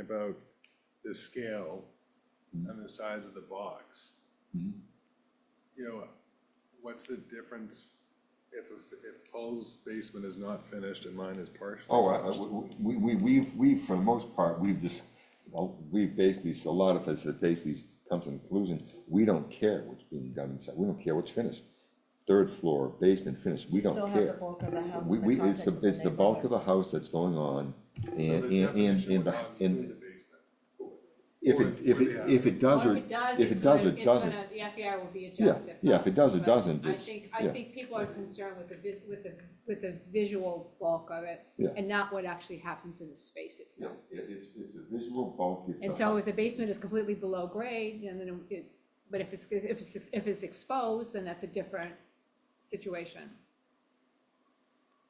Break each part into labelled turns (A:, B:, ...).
A: about the scale and the size of the box.
B: Hmm.
A: You know, what's the difference if, if Paul's basement is not finished and mine is partially?
B: Oh, I- I- we, we, we've, we've, for the most part, we've just, well, we've basically, a lot of us have basically come to the conclusion, we don't care what's being done inside, we don't care what's finished. Third floor, basement finished, we don't care.
C: Still have the bulk of the house
B: We,
C: in the
B: we, it's
C: context
B: the,
C: of the
B: it's the bulk of the house that's going on, and, and, and, and the- and if
A: would-
B: it, if
A: would
B: it,
A: have-
B: if it does
D: Well,
B: or,
D: if it does,
B: if
D: it's
B: it does
D: gonna,
B: or
D: it's gonna,
B: doesn't,
D: the FEI will be
B: Yeah,
D: adjusted.
B: yeah, if it does or
D: but
B: doesn't, it's-
D: I think, I
B: yeah.
D: think people are concerned with the, vis- with the, with the visual bulk of it
B: Yeah.
D: and not what actually happens in the space
B: Yeah,
D: itself.
B: it- it's, it's a visual bulk, it's
D: And
B: a-
D: so if the basement is completely below grade, and then it, but if it's, if it's, if it's exposed, then that's a different situation.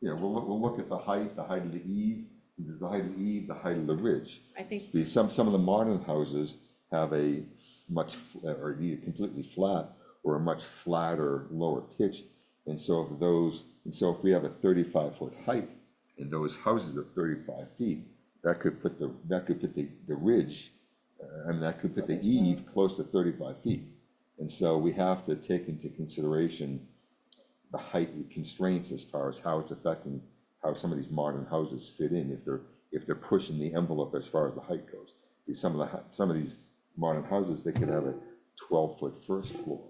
B: Yeah, we'll, look- we'll look at the height, the height of the eave, there's the height of the eave, the height of the ridge.
D: I think,
B: The, some, some of the modern houses have a much, f- or either completely flat, or a much flatter, lower pitch. And so if those, and so if we have a thirty-five foot height, and those houses are thirty-five feet, that could put the, that could put the, the ridge, uh, I mean, that could put the eve close to thirty-five feet. And so we have to take into consideration the height constraints as far as how it's affecting how some of these modern houses fit in, if they're, if they're pushing the envelope as far as the height goes. Because some of the, hu- some of these modern houses, they could have a twelve-foot first floor,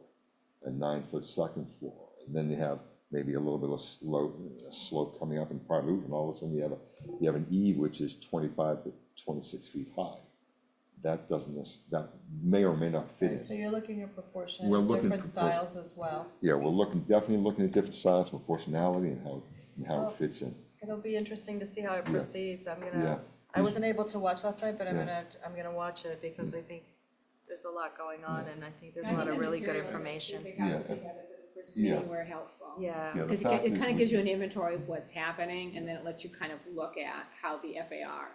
B: a nine-foot second floor, and then they have maybe a little bit of slope, a slope coming up in part roof, and all of a sudden you have a, you have an eve which is twenty-five to twenty-six feet high. That doesn't, nec- that may or may not fit in.
C: Right, so you're looking at proportion,
B: We're looking at
C: different
B: proportion.
C: styles as well.
B: Yeah, we're looking, definitely looking at different styles, proportionality and how, and how
D: Oh.
C: Well-
B: it fits in.
C: It'll be interesting to see how it proceeds, I'm
B: Yeah.
C: gonna, I wasn't able to watch last night, but I'm
B: Yeah.
C: gonna, I'm gonna watch it because I think there's a lot going on and I think there's
D: I
C: a lot
D: think
C: of
D: the
C: really good
D: materials that
C: information.
D: They got
B: Yeah.
D: together for the first
B: Yeah.
D: meeting were helpful.
C: Yeah,
B: Yeah, the
D: Because
B: fact
D: it
B: is
D: kind
B: we-
D: of gives you an inventory of what's happening, and then it lets you kind of look at how the FAR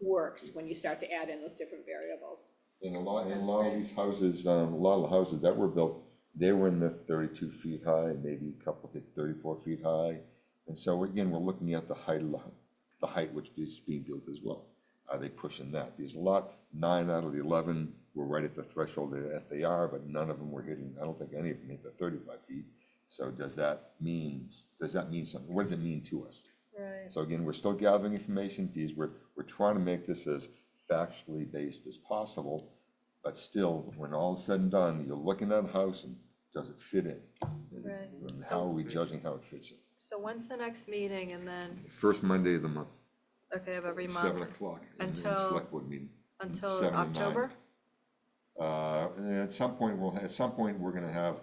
D: works when you start to add in those different variables.
B: In a lot, in a lot of these houses, um, a lot of the houses that were built, they were in the thirty-two feet high, maybe a couple hit thirty-four feet high. And so again, we're looking at the height of the, the height which is being built as well. Are they pushing that? Because a lot, nine out of the eleven were right at the threshold of the FAR, but none of them were hitting, I don't think any of them hit the thirty-five feet. So does that mean, does that mean something? What does it mean to us?
C: right,
B: So again, we're still gathering information, these, we're, we're trying to make this as factually based as possible. But still, when all is said and done, you're looking at a house and does it fit in?
C: right.
B: And how are
C: So,
B: we judging how it fits in?
C: so when's the next meeting and then,
B: First Monday of the month,
C: okay, of every
B: seven
C: month,
B: o'clock, in the
C: until-
B: select board meeting.
C: until
B: seven and nine.
C: October?
B: Uh, and at some point, we'll, at some point, we're gonna have,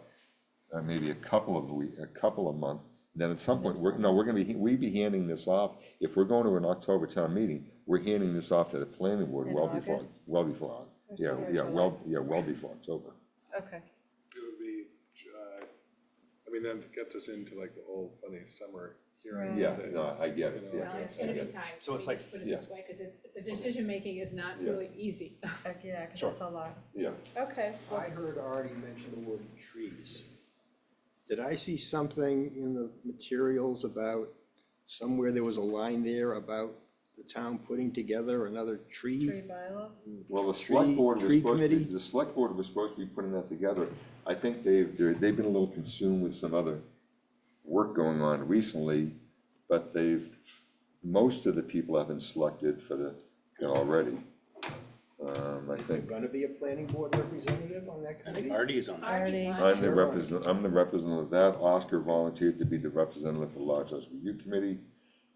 B: uh, maybe a couple of week, a couple of month. Then at some point, we're, no, we're gonna be, we be handing this off, if we're going to an October town meeting, we're handing this off to the planning board
C: In
B: well before,
C: August?
B: well before.
C: Or
B: Yeah,
C: somewhere in
B: yeah,
C: July.
B: well, yeah, well before October.
C: Okay,
A: It would be, uh, I mean, that gets us into like the whole funny summer hearing.
C: Right.
B: Yeah,
A: that,
B: no, I get it,
A: you know,
B: yeah.
A: like,
D: Well, it's
A: I
D: gonna be
A: guess-
D: time,
E: So
D: let
E: it's
D: me
E: like-
D: just put it this way, because the decision-making is not
B: Yeah.
D: really easy.
C: Uh, yeah, cause
B: Sure.
C: it's a lot,
B: Yeah,
C: okay, well,
E: I heard Artie mention the word trees. Did I see something in the materials about, somewhere there was a line there about the town putting together another
C: tree
E: tree?
C: bylaw,
B: well, the select
E: Tree-
B: board was
E: tree
B: supposed to, be-
E: committee?
B: the select board was supposed to be putting that together. I think they've, they're- they've been a little consumed with some other work going on recently, but they've, most of the people have been selected for the, you know, already. Um, I
E: Is there
B: think,
E: gonna be a planning board representative on that
F: I think
E: committee?
F: Artie is on that.
C: Already.
B: I'm the representative, I'm the representative of that, Oscar volunteered to be the representative for the Large House Review Committee.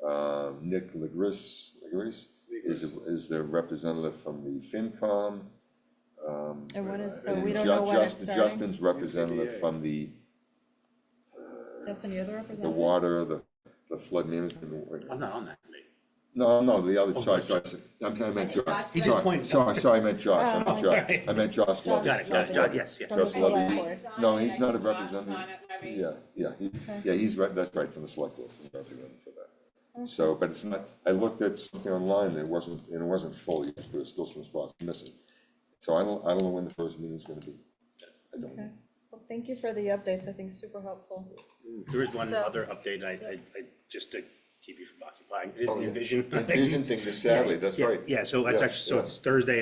B: Um, Nick Legris, Legris is, is the representative from the FinCom.
C: and when is, so
B: And
C: we don't
B: Ju-
C: know when it's
B: Justin-
C: starting,
B: Justin's representative
A: UCBA.
B: from the,
C: Justin, you're the
B: the
C: representative?
B: water, the, the flood management.
F: I'm not on that committee.
B: No, no, the other, sorry, sorry, I'm sorry, I meant
D: Josh
B: Josh,
D: He's
F: just
B: sorry,
F: pointing.
B: sorry, sorry, I meant Josh, I meant
C: Oh.
B: Josh, I meant Josh Love.
F: Got it, got it, got it, yes, yes.
C: From the
B: Just love
C: select
B: these.
C: board.
B: No, he's not a representative. Yeah,
D: representative.
B: yeah, he, yeah, he's right, that's right, from the select board, he's representing for that. So, but it's not, I looked at something online, and it wasn't, and it wasn't full yet, there was still some spots missing. So I don't, I don't know when the first meeting's gonna be. I don't know.
C: Okay. Well, thank you for the updates, I think super helpful.
F: There is one
C: So-
F: other update, I, I, I- just to keep you from occupying. It is
B: Oh,
F: the
B: yeah.
F: envision.
B: Envision thing, sadly, that's
F: Yeah,
B: right.
F: Yeah, so that's
B: Yeah,
F: actually, so
B: yeah.
F: it's Thursday